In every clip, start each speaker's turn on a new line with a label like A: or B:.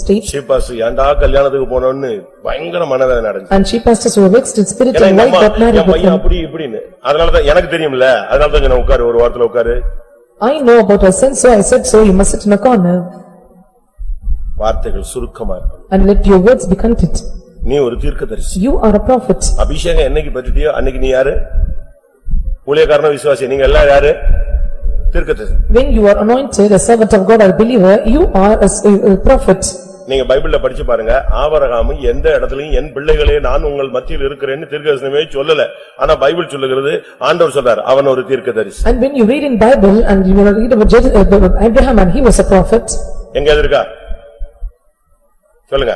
A: state
B: chief pastor ஏன்டா கல்யாணத்துக்கு போனோம்னு பயங்கர மனதை நடந்துச்சு
A: and she pastors were vexed in spirit
B: ஏன்னா
A: and
B: எங்க
A: wife
B: அம்மா,
A: got married
B: என்
A: with
B: பையன்
A: him.
B: அப்படி இப்படின்னு அதனாலதான் எனக்கு தெரியும்ல அதனாலதான் சொன்னேன், உட்காரு ஒரு வாரத்துல உட்காரு
A: I know about her sin, so I said so, you must sit in a corner
B: வார்த்தைகள் சுருக்கமா இருக்கும்
A: and let your words be content.
B: நீ ஒரு தீர்க்கதரிசி
A: You are a prophet.
B: அபிஷேகம் என்னைக்கு பற்றிட்டியோ அன்னைக்கு நீ யாரு ஊழியக்காரன விசுவாசி நீங்க எல்லாம் யாரு தீர்க்கதரிசி
A: When you are anointed, a servant of God or believer, you are a s- a a prophet.
B: நீங்க பைபிள்ல படிச்சு பாருங்க ஆபரகாம் எந்த இடத்துலயும் என் பிள்ளைகளே நான் உங்கள் மத்தியில் இருக்கிறேன்னு தீர்க்கதரிசனமே சொல்லல ஆனா பைபிள் சொல்லுகிறது ஆண்டவர் சொல்றார் அவன் ஒரு தீர்க்கதரிசி
A: And when you read in Bible and you will read about Jer- uh, about Abraham and he was a prophet.
B: எங்க அது இருக்கா சொல்லுங்க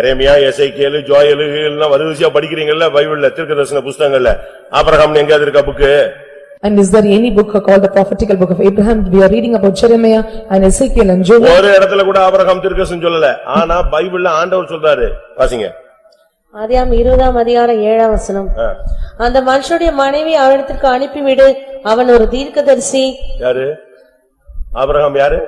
B: எரேமியா எசைக்கேலு ஜோயலு எல்லாம் வரிசையா படிக்கிறீங்கல்ல பைபிள்ல தீர்க்கதரிசன புஸ்தகங்கள்ல ஆபரகாம் எங்க அது இருக்கா book
A: And is there any book called the prophetical book of Abraham? We are reading about Jeremiah and Ezekiel and Joel.
B: ஒரு இடத்துல கூட ஆபரகாம் தீர்க்கதரிசனம் சொல்லல ஆனா பைபிள்ல ஆண்டவர் சொல்றாரு வாசிங்க
C: ஆதியாம் இருபதாம் அதிகாரம் ஏழாம் வசனம்
B: ஆ.
C: அந்த மனுஷனுடைய மனைவி அவனிடத்திற்கு அனுப்பிவிடு அவன் ஒரு தீர்க்கதரிசி
B: யாரு ஆபரகாம் யாரு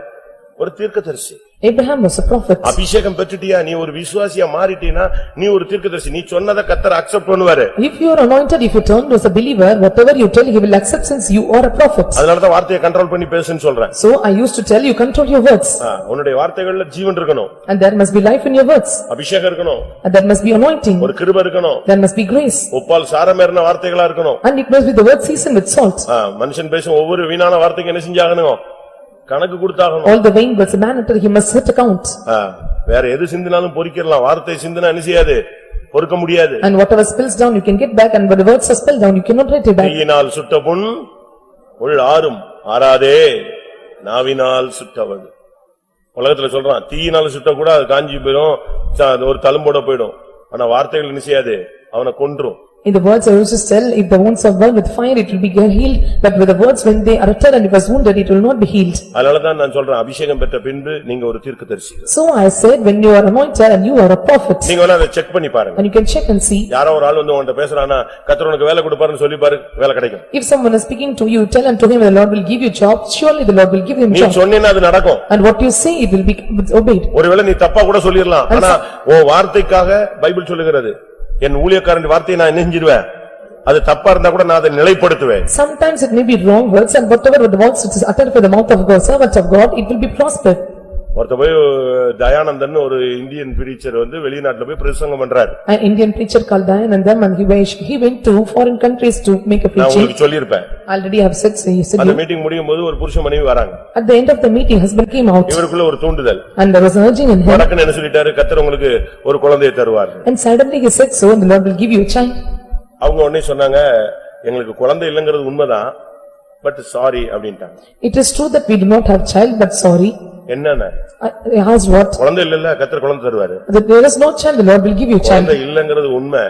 B: ஒரு தீர்க்கதரிசி
A: Abraham was a prophet.
B: அபிஷேகம் பெற்றுட்டியா நீ ஒரு விசுவாசியா மாறிட்டீனா நீ ஒரு தீர்க்கதரிசி நீ சொன்னதை கத்தர் அக்செப்ட் பண்ணுவாரு
A: If you are anointed, if you turn as a believer, whatever you tell, he will accept since you are a prophet.
B: அதனாலதான் வார்த்தையை கண்ட்ரோல் பண்ணி பேசுன்னு சொல்றேன்
A: So I used to tell you, control your words,
B: ஆ, உன்னுடைய வார்த்தைகள்ல ஜீவன் இருக்கணும்
A: and there must be life in your words,
B: அபிஷேகம் இருக்கணும்
A: and there must be anointing,
B: ஒரு கிருப இருக்கணும்
A: there must be grace,
B: உப்பால் சாரமேறின வார்த்தைகளா இருக்கணும்
A: and it must be the word seasoned with salt.
B: ஆ, மனுஷன் பேசும் ஒவ்வொரு வீணான வார்த்தைக்கு என்ன செஞ்சாகணும் கணக்கு கொடுத்தாகணும்
A: All the vain words, a man until he must set account,
B: ஆ, வேற எது சிந்தினாலும் பொறிக்கிறலாம் வார்த்தை சிந்தினா என்ன செய்யாது பொறுக்க முடியாது
A: and whatever spills down, you can get back, and when the words are spilled down, you cannot write it back.
B: கையினால் சுட்ட புண் உள் ஆறும் ஆறாதே நாவினால் சுட்டவள் உலகத்துல சொல்றான் தீயினால சுட்ட கூட அது காஞ்சி போயிடும் ச- அது ஒரு தழும்போட போயிடும் ஆனா வார்த்தைகள் என்ன செய்யாது அவனை கொன்றும்
A: In the words I used to tell, if the wounds are burned with fire, it will be healed, but with the words when they are uttered and it was wounded, it will not be healed.
B: அதனாலதான் நான் சொல்றேன் அபிஷேகம் பெற்ற பின்பு நீங்க ஒரு தீர்க்கதரிசி
A: So I said, when you are anointed and you are a prophet,
B: நீங்க வேணா அதை செக் பண்ணி பாருங்க
A: and you can check and see,
B: யாரோ ஒரு ஆள் வந்து உன்கிட்ட பேசுறானா கத்தர் உனக்கு வேலை கொடுப்பாருன்னு சொல்லி பாரு வேலை கிடைக்கும்
A: If someone is speaking to you, tell unto him, the Lord will give you job, surely the Lord will give him
B: நீ
A: job.
B: சொன்னீன்னா அது நடக்கும்
A: And what you say, it will be obeyed.
B: ஒருவேளை நீ தப்பா கூட சொல்லிடலாம் ஆனா உன் வார்த்தைக்காக பைபிள் சொல்லுகிறது என் ஊழியக்காரன் வார்த்தையை நான் நெஞ்சிருவேன் அது தப்பா இருந்தா கூட நான் அதை நிலைப்படுத்துவேன்
A: Sometimes it may be wrong words and whatever the words which is uttered by the mouth of God, servant of God, it will be prospered.
B: ஒருத்த போய் தயானந்தன் ஒரு இந்தியன் பிரீச்சர் வந்து வெளிநாட்டுல போய் பிரசங்கம் பண்றாரு
A: An Indian preacher called Dayanandam and he went, he went to foreign countries to make a
B: நான்
A: preaching.
B: உங்களுக்கு சொல்லியிருப்பேன்
A: Already I have said, so he said,
B: அந்த மீட்டிங் முடியும் போது ஒரு புருஷ மனைவி வராங்க
A: at the end of the meeting, husband came out
B: இவருக்குள்ள ஒரு தூண்டுதல்
A: and there was urging in him.
B: வடக்குன்னு என்ன சொல்லிட்டாரு கத்தர் உங்களுக்கு ஒரு குழந்தையை தருவார்
A: And suddenly he said, so and the Lord will give you a child.
B: அவங்க உடனே சொன்னாங்க எங்களுக்கு குழந்தை இல்லைங்கிறது உண்மைதான் பட் சாரி அப்படின்ட்டாங்க
A: It is true that we do not have child, but sorry.
B: என்னன்னு
A: I I asked what?
B: குழந்தை இல்லல்ல கத்தர் குழந்தை தருவாரு
A: That There is no child, the Lord will give you child.
B: குழந்தை இல்லங்கிறது உண்மை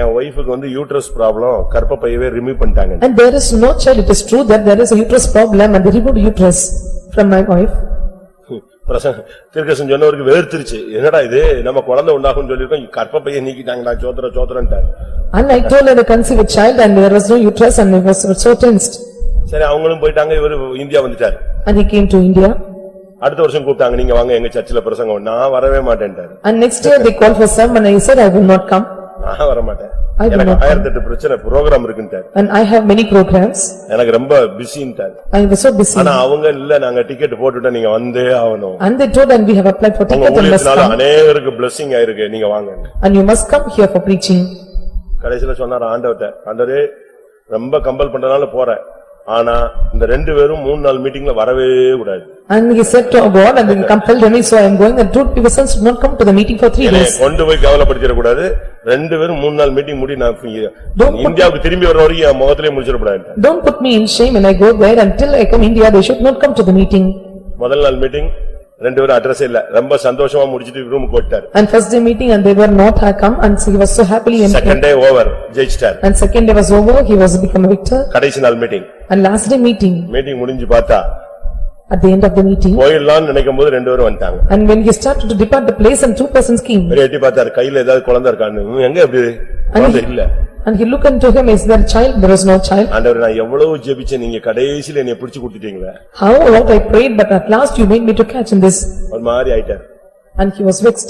B: என் ஒய்ஃபுக்கு வந்து யூட்ரஸ் ப்ராப்ளம் கர்ப்பப்பையவே ரிமூவ் பண்ணிட்டாங்க
A: And there is no child, it is true that there is a uterus problem and they removed uterus from my wife.
B: பிரசங்க திருக்கசன் சொன்னவருக்கு வேர்த்திருச்சு என்னடா இது நம்ம குழந்தை உண்டாகும்னு சொல்லிருக்கோம் கர்ப்பப்பையை நீக்கிட்டாங்கடா சோத்திர சோத்திரன்ட்டார்
A: And I told her to conceive a child and there was no uterus and I was so tensed.
B: சரி அவங்களும் போயிட்டாங்க இவரு இந்தியா வந்துட்டாரு
A: And he came to India
B: அடுத்த வருஷம் கூப்பிட்டாங்க நீங்க வாங்க எங்க சர்ச்சில் பிரசங்கம் நான் வரவே மாட்டேன்ட்டாரு
A: and next year they called for some and I said I will not come
B: நான் வர மாட்டேன்
A: I will
B: எனக்கு
A: not come.
B: ஆயிரத்தி எட்டு பிரச்சனை ப்ரோக்ராம் இருக்குன்ட்டாரு
A: and I have many programs.
B: எனக்கு ரொம்ப பிஸின்ட்டாரு
A: I was so busy
B: ஆனா அவங்க இல்ல நாங்க டிக்கெட் போட்டுட்டோம் நீங்க வந்தே ஆகணும்
A: and they told and we have applied for
B: உங்க
A: ticket and must
B: ஊழியத்தினால
A: come
B: அநேகருக்கு blessing ஆயிருக்கு நீங்க வாங்க
A: and you must come here for preaching.
B: கடைசில சொன்னார் ஆண்டவர்ட்ட ஆண்டவரே ரொம்ப கம்பல் பண்றதுனால போறேன் ஆனா இந்த ரெண்டு பேரும் மூணு நாள் மீட்டிங்ல வரவே கூடாது
A: And he said to God and then compelled me so I am going and two persons did not come to the meeting for three
B: என்னைய
A: days.
B: கொண்டு போய் கவலைப்படுத்திட கூடாது ரெண்டு பேரும் மூணு நாள் மீட்டிங் முடி நான் free-
A: Don't put-
B: இந்தியாவுக்கு திரும்பி வர வரைக்கும் என் முகத்திலே முடிச்சிடக்கூடாது
A: Don't put me in shame when I go there until I come India, they should not come to the meeting.
B: முதல் நாள் மீட்டிங் ரெண்டு பேரும் அட்ரஸ் இல்ல ரொம்ப சந்தோஷமா முடிச்சிட்டு ரூம் போட்டார்
A: And first day meeting and they were not had come and so he was so happily empty.
B: Second day over ஜெயிச்சிட்டார்
A: And second day was over, he was become a victor.
B: கடைசி நாள் meeting
A: And last day meeting,
B: meeting முடிஞ்சு பார்த்தா
A: at the end of the meeting.
B: போயிடலாம்னு நினைக்கும் போது ரெண்டு பேரும் வந்துட்டாங்க
A: And when he started to depart the place and two persons came.
B: பெரிய எட்டி பார்த்தாரு கையில ஏதாவது குழந்தை இருக்கான்னு "ம், எங்க எப்படி குழந்தை இல்ல
A: And he looked unto him, is there a child? There was no child.
B: ஆண்டவர் நான் எவ்வளவு ஜெபிச்சேன் நீங்க கடைசில என்னை பிடிச்சு கொடுத்துட்டீங்களே
A: How lot I prayed but at last you made me to catch in this.
B: ஒரு மாதிரி ஆயிட்டார்
A: And he was vexed